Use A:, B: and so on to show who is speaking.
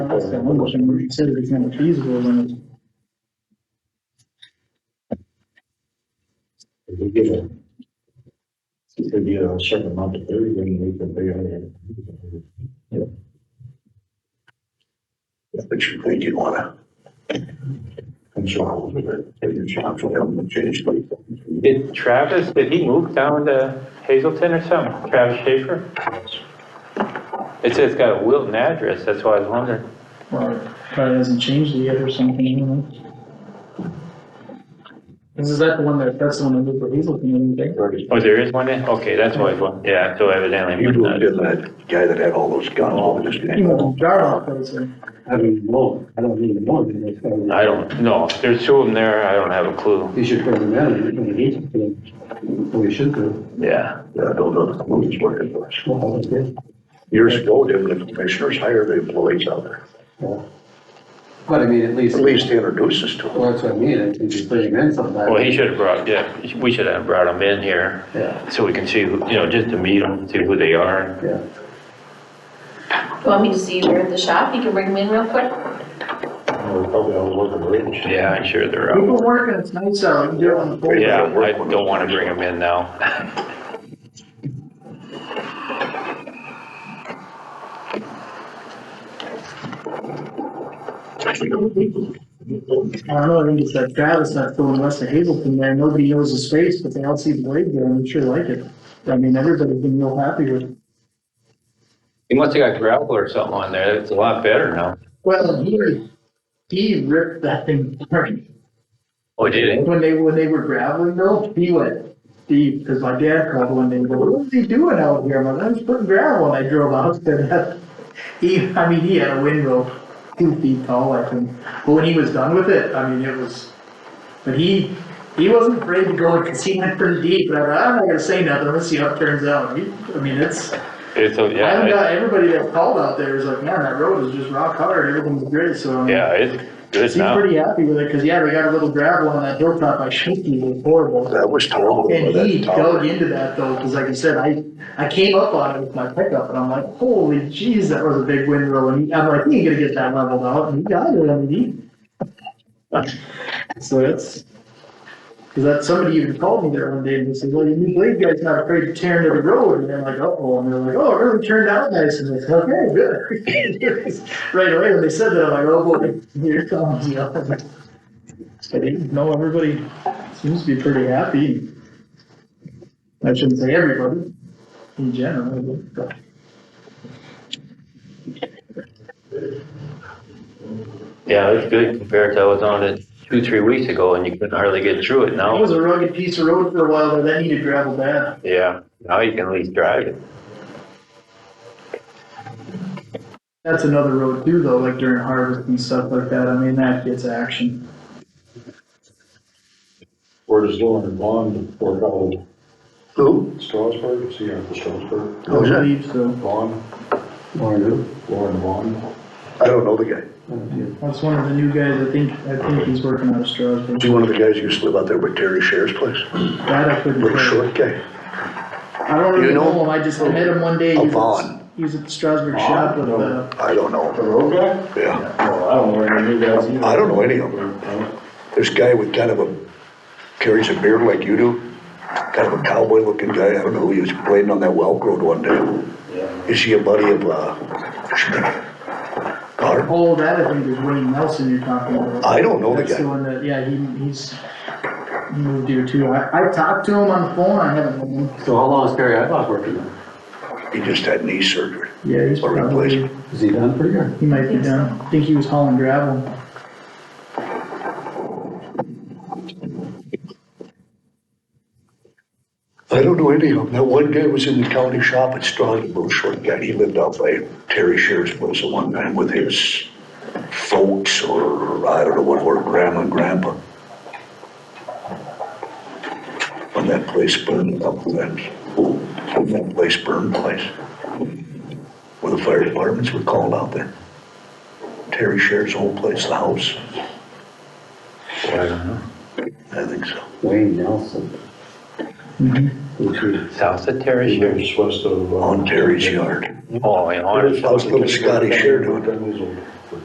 A: that's the one question, we said if it's not feasible, then it's.
B: If we give it. If we give it a certain amount of thirty, then we can figure out.
C: But you think you wanna control, take your chance, and change like.
D: Did Travis, did he move down to Hazelton or something? Travis Schaefer? It says it's got a Wilton address, that's why I was wondering.
A: Well, probably hasn't changed yet or something, you know? This is that the one that, that's the one that moved for Hazel, can you think?
D: Oh, there is one there? Okay, that's why I was wondering. Yeah, so evidently.
C: You moved in that guy that had all those guns over this
A: He
C: guy.
A: moved jar off, but it's like,
B: I mean, no, I don't need a motion. it's gotta-
D: I don't, know. there's two of them there, I don't have a clue.
B: You should bring them in, you're gonna need them, we should do.
D: Yeah.
C: Yeah, I don't know the movies working for us.
B: Well, that's it.
C: Years ago, didn't the commissioners hire the employees out there?
B: Yeah. But I mean, at least,
C: At
B: well,
C: least introduce us to them.
B: that's what I mean, if you bring them in sometime.
D: Well, he should have brought, yeah, we should have brought them in here
B: Yeah,
D: so we can see, who- you know, just to meet them, see who they are.
B: yeah.
E: You want me to see where the shop, you can bring them in real quick?
C: Probably all working range.
D: Yeah, I'm sure they're
A: we've
D: out.
A: been working, it's nice out, we can do it on the board.
D: Yeah, I don't want to bring them in now.
A: I don't know, I think it's that Travis not filling west of Hazelton there, nobody knows the space, but they all see the blade there, and they sure like it. I mean, everybody's been real happy with it.
D: He must have got gravel or something on there, it's a lot better now.
A: Well, he, he ripped that thing apart.
D: Oh, did
A: When they, when they were graveling though, he went deep, cause my dad called one day, and go, what was he doing out here? I'm like, I was putting gravel, and I drove out to that. He, I mean, he had a windrow two feet tall, I think, but when he was done with it, I mean, it was, but he, he wasn't afraid to go, cause he went pretty deep, and I'm like, I'm not gonna say nothing, let's see how it turns out. He- I mean, it's, I
D: It's, a-
A: haven't
D: yeah,
A: got, everybody that called out there is like, man, that road is just rock hard, everything's great, so. I
D: it-
A: mean,
D: yeah, it's good
A: Seemed
D: now.
A: pretty happy with it, cause yeah, we got a little gravel on that hilltop, I should be was horrible.
C: That was terrible.
A: And
C: that
A: he
C: tower.
A: dug into that though, cause like I said, I, I came up on it with my pickup and I'm like, holy jeez, that was a big windrow and he- I'm like, he ain't gonna get that leveled out and he got it, I mean, he. So it's, cause that, somebody even called me there one day and they said, well, your new blade guy's not afraid to tear into the road and I'm like, oh, and they're like, oh, it really turned out nice and I said, okay, good. Right away, when they said that, I'm like, oh boy, here it comes, you know. I didn't know everybody seems to be pretty happy. I shouldn't say everybody, in general, but.
D: Yeah, it's good compared to I was on it two, three weeks ago and you couldn't hardly get through it
A: That
D: now.
A: was a rugged piece of road for a while, but that needed gravel bad.
D: Yeah, now you can at least drive it.
A: That's another road too, though, like during harvest and stuff like that, I mean, that gets action.
B: Where does Lauren Vaughn work out?
C: Who?
B: Strasburg, see, Uncle Strasburg.
C: Who's
A: I
C: that?
A: believe so,
B: Vaughn. Lauren who? Uh, Lauren Vaughn.
C: I don't know the guy.
A: that's one of the new guys, I think, I think he's working out of Strasburg,
C: Is he one of the guys who used to live out there with Terry Sher's place?
A: that I couldn't.
C: Little
A: tell.
C: short guy.
A: I don't
C: You
A: really
C: know-
A: know him, I just I met him one day,
C: Oh,
A: he was,
C: Vaughn.
A: at- he was at the Strasburg shop with, uh,
C: I don't know.
F: road guy?
C: Yeah.
F: No, I don't know any of you guys either.
C: I don't know any of them. This guy with kind of a, carries a beard like you do, kind of a cowboy looking guy. I don't know who he was playing on that Welk Road one day.
F: Yeah.
C: Is he a buddy of, uh, Schmidt? Carr?
A: oh, that I think is Wayne Nelson you're talking about.
C: I don't know the
A: That's the
C: guy.
A: one that, yeah, he, he's he moved here too. I, I talked to him on the phone, I haven't, met him.
B: So how long is Terry Headlock working there?
C: He just had knee surgery.
A: yeah, he's
C: Or
A: probably,
C: replacement.
B: Is he done for a year?
A: he might be down. I think he was hauling gravel.
C: I don't know any of them. That one guy was in the county shop at Strong, little short guy. He lived out by Terry Shear's place at one time with his folks or I don't know what, or grandma and grandpa. When that place burned up, when that, when that place burned place, where the fire departments were called out there. Terry Shear's whole place, the house,
D: Boy, I don't know.
C: I think so.
B: Wayne Nelson.
F: Which is,
D: South of Terrace
F: he
D: here.
F: lives west of. uh,
C: On Terry's yard.
D: Oh, yeah, on it.
C: How's little Scotty Shear doing?
F: Ten years old.